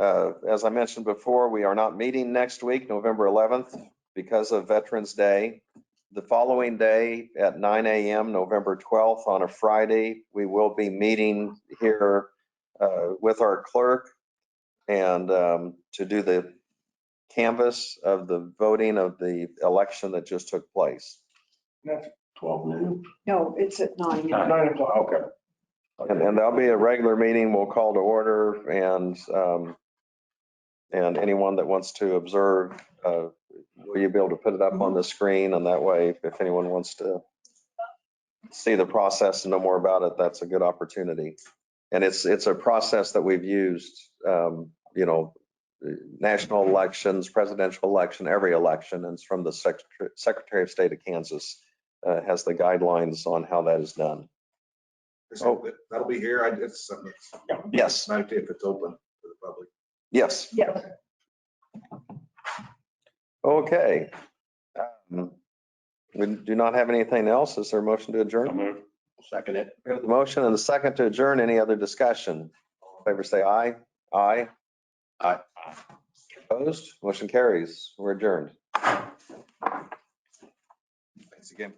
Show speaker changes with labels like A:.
A: Uh, As I mentioned before, we are not meeting next week, November 11th, because of Veterans Day. The following day at 9 AM, November 12th, on a Friday, we will be meeting here uh, with our clerk and um, to do the canvas of the voting of the election that just took place.
B: That's twelve noon,
C: No, it's at nine.
B: nine o'clock, okay.
A: And, and that'll be a regular meeting. We'll call to order and, um, and anyone that wants to observe, uh, will you be able to put it up on the screen? And that way, if anyone wants to see the process and know more about it, that's a good opportunity. And it's, it's a process that we've used, um, you know, national elections, presidential election, every election. And it's from the Secretary, Secretary of State of Kansas, uh, has the guidelines on how that is done.
D: So that- That'll be here. I um, did some,
A: Yes,
D: not if it's open to the public.
A: yes.
C: Yeah,
A: Okay. Um, We do not have anything else. Is there a motion to adjourn?
B: move. Second it.
A: We have the motion and the second to adjourn. Any other discussion? All in Favor say aye. Aye.
B: Aye.
A: Opposed? Motion carries. We're adjourned.
D: Thanks again.